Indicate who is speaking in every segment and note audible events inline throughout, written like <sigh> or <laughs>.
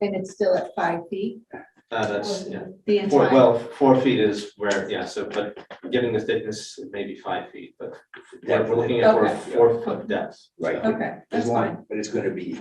Speaker 1: and it's still at five feet?
Speaker 2: Uh, that's, yeah,
Speaker 1: The
Speaker 2: four,
Speaker 1: entire,
Speaker 2: well, four feet is where, yeah, so, but given the thickness, maybe five feet, but what we're looking at, we're
Speaker 1: Okay.
Speaker 2: four foot depth.
Speaker 3: Right.
Speaker 2: So,
Speaker 1: okay,
Speaker 3: There's
Speaker 1: that's fine.
Speaker 3: one, but it's gonna be,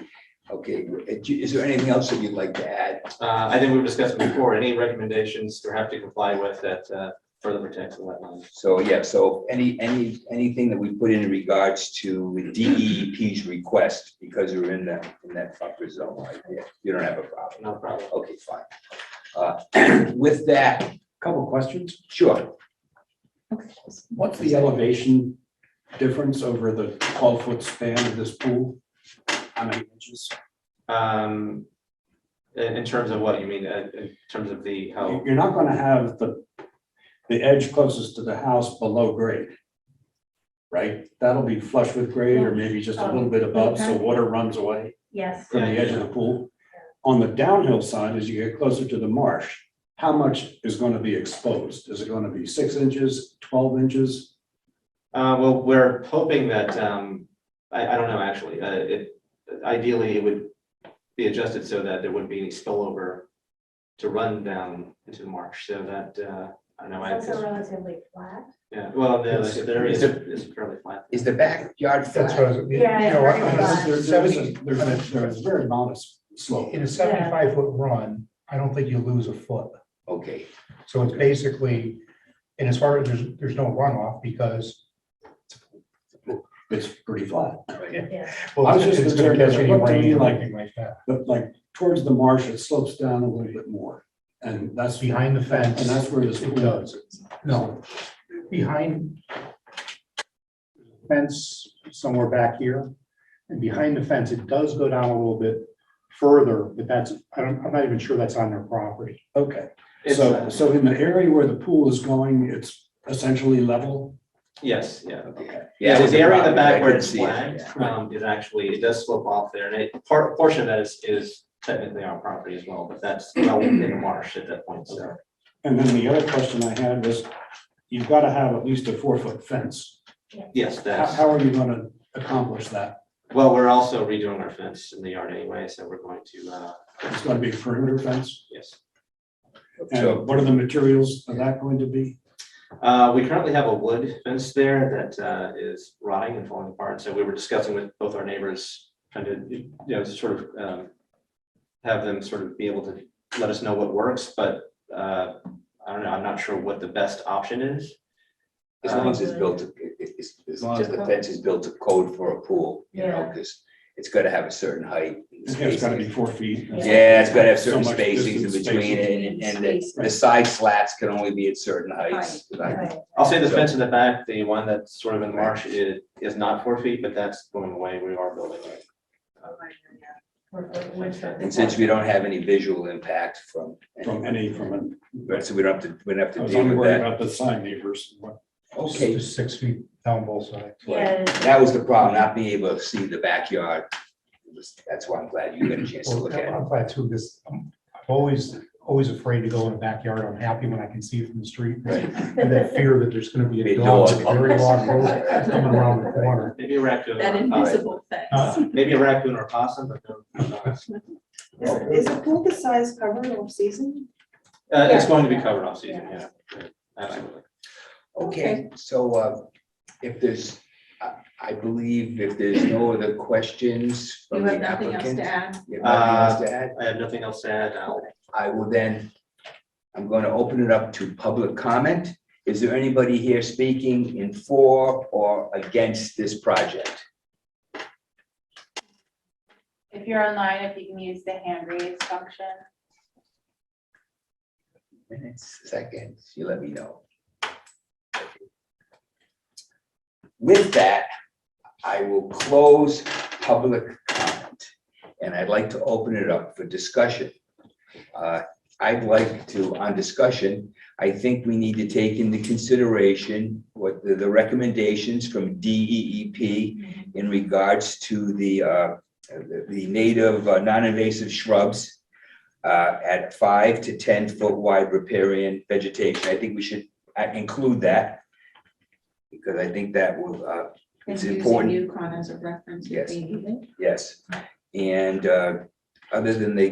Speaker 3: okay, uh, is there anything else that you'd like to add?
Speaker 2: Uh, I think we've discussed before, any recommendations we have to comply with that, uh, further protects the wetlands.
Speaker 3: So, yeah, so any, any, anything that we put in regards to DEP's request, because we're in that, in that buffer zone, right there, you don't have a problem.
Speaker 2: No problem.
Speaker 3: Okay, fine. Uh, <clears throat> With that,
Speaker 4: Couple questions.
Speaker 3: sure,
Speaker 4: What's the elevation difference over the twelve foot span of this pool? How many inches?
Speaker 2: Um, in, in terms of what you mean, uh, in terms of the, how,
Speaker 4: You- You're not gonna have the, the edge closest to the house below grade. Right? That'll be flush with grade or maybe just a little bit above, so water runs away
Speaker 5: Yes,
Speaker 4: from the edge of the pool. On the downhill side, as you get closer to the marsh, how much is gonna be exposed? Is it gonna be six inches, twelve inches?
Speaker 2: uh, well, we're hoping that, um, I, I don't know, actually, uh, it, ideally, it would be adjusted so that there wouldn't be any spillover to run down into the marsh, so that, uh, I don't know, I
Speaker 5: it's also
Speaker 2: guess,
Speaker 5: relatively flat.
Speaker 2: yeah, well, no, the the area is, is fairly flat.
Speaker 3: is the backyard
Speaker 6: That's what I
Speaker 3: flat?
Speaker 6: was.
Speaker 5: Yeah,
Speaker 6: you know,
Speaker 5: very
Speaker 6: on a
Speaker 5: much.
Speaker 4: There- there is a-
Speaker 6: seventy-
Speaker 4: There's a, there's a very modest slope.
Speaker 6: In a seventy-five foot run, I don't think you lose a foot.
Speaker 3: Okay,
Speaker 6: So it's basically, and as far as there's, there's no runoff because.
Speaker 4: It's pretty flat.
Speaker 5: Yeah.
Speaker 6: <laughs> well,
Speaker 4: I was just
Speaker 6: it's gonna
Speaker 4: concerned as
Speaker 6: catch
Speaker 4: to
Speaker 6: any
Speaker 4: what do
Speaker 6: rain
Speaker 4: you
Speaker 6: or
Speaker 4: like-
Speaker 6: anything like that.
Speaker 4: But like towards the marsh, it slopes down a little bit more. And that's.
Speaker 6: Behind the
Speaker 4: And
Speaker 6: fence.
Speaker 4: that's where this
Speaker 6: It
Speaker 4: pool
Speaker 6: does.
Speaker 4: is.
Speaker 6: No, behind fence somewhere back here, and behind the fence, it does go down a little bit further, but that's, I don't, I'm not even sure that's on their property.
Speaker 4: Okay,
Speaker 2: It's,
Speaker 4: so,
Speaker 2: uh,
Speaker 4: so in the area where the pool is going, it's essentially level.
Speaker 2: Yes, yeah.
Speaker 3: okay.
Speaker 2: Yeah,
Speaker 3: that
Speaker 2: the
Speaker 3: was
Speaker 2: area in the
Speaker 3: problem, I
Speaker 2: back where
Speaker 3: couldn't
Speaker 2: it's
Speaker 3: see it,
Speaker 2: flagged,
Speaker 3: yeah.
Speaker 2: um, is actually, it does slope off there, and it, part, portion of that is, is technically our property as well, but that's well within the marsh at that point, so.
Speaker 4: And then the other question I had was, you've got to have at least a four foot fence.
Speaker 2: Yes,
Speaker 4: How,
Speaker 2: that's,
Speaker 4: how are you going to accomplish that?
Speaker 2: well, we're also redoing our fence in the yard anyway, so we're going to, uh,
Speaker 4: It's going to be a perimeter fence?
Speaker 2: yes.
Speaker 3: So,
Speaker 4: And what are the materials of that going to be?
Speaker 2: Uh, we currently have a wood fence there that, uh, is rotting and falling apart, so we were discussing with both our neighbors, trying to, you know, to sort of, um, have them sort of be able to let us know what works, but, uh, I don't know, I'm not sure what the best option is.
Speaker 3: As long as
Speaker 5: Um,
Speaker 3: it's built, to- it- it- it's- as long as the fence is built to code for a pool, you know,
Speaker 5: Yeah.
Speaker 3: because it's gotta have a certain height. and
Speaker 4: It's got to be
Speaker 3: spacing.
Speaker 4: four feet.
Speaker 3: Yeah, it's gotta have certain
Speaker 4: So much
Speaker 3: spacings in
Speaker 4: distance,
Speaker 3: between
Speaker 4: spacing.
Speaker 3: it, and, and the- the
Speaker 4: Right.
Speaker 3: side slats can only be at certain heights.
Speaker 5: Right.
Speaker 2: I'll say the
Speaker 3: So-
Speaker 2: fence in the back, the one that's sort of in the marsh is, is not four feet, but that's going away, we are building it.
Speaker 5: We're- we're- we're-
Speaker 3: And since we don't have any visual impact from,
Speaker 4: From any, from an
Speaker 3: right, so we don't have to, we don't have
Speaker 4: I
Speaker 3: to
Speaker 4: was
Speaker 3: deal
Speaker 4: only
Speaker 3: with
Speaker 4: worried
Speaker 3: that.
Speaker 4: about the side neighbors.
Speaker 3: Okay,
Speaker 6: Just Six feet down both sides.
Speaker 5: Yeah.
Speaker 3: that was the problem, not being able to see the backyard. It was- That's why I'm glad you got a chance to
Speaker 6: Well,
Speaker 3: look at it.
Speaker 6: I'm glad too, because I'm I'm always, always afraid to go in the backyard. I'm happy when I can see it from the street.
Speaker 3: Right.
Speaker 6: And that fear that there's gonna be
Speaker 3: Be a
Speaker 6: a dog,
Speaker 3: dog.
Speaker 6: with a very long nose coming around the corner.
Speaker 2: Maybe a raccoon.
Speaker 1: That
Speaker 2: or a possum.
Speaker 1: invisible fence.
Speaker 2: Uh, Maybe a raccoon or a possum, but no. no.
Speaker 7: Is a pool this size covered off season?
Speaker 2: Uh, it's going to be covered off season, yeah. Absolutely.
Speaker 3: Okay, so uh, if there's, I, I believe if there's no other questions
Speaker 1: You
Speaker 3: from the
Speaker 1: have nothing else
Speaker 3: applicant.
Speaker 1: to add?
Speaker 3: you have nothing else to add?
Speaker 2: I have nothing else to add. I'll-
Speaker 3: I will then, I'm going to open it up to public comment. Is there anybody here speaking in for or against this project?
Speaker 8: If you're online, if you can use the hand raise function.
Speaker 3: Minutes, seconds, you let me know. With that, I will close public comment, and I'd like to open it up for discussion. Uh, I'd like to, on discussion, I think we need to take into consideration what the, the recommendations from E DEEP in regards to the, uh, the- the native uh, non-invasive shrubs uh, at five to ten foot wide riparian vegetation. I think we should uh, include that. Because I think that will, uh, It's
Speaker 1: And using
Speaker 3: important.
Speaker 1: Yukon as a reference would
Speaker 3: Yes.
Speaker 1: be needed?
Speaker 3: yes. And, uh, other than they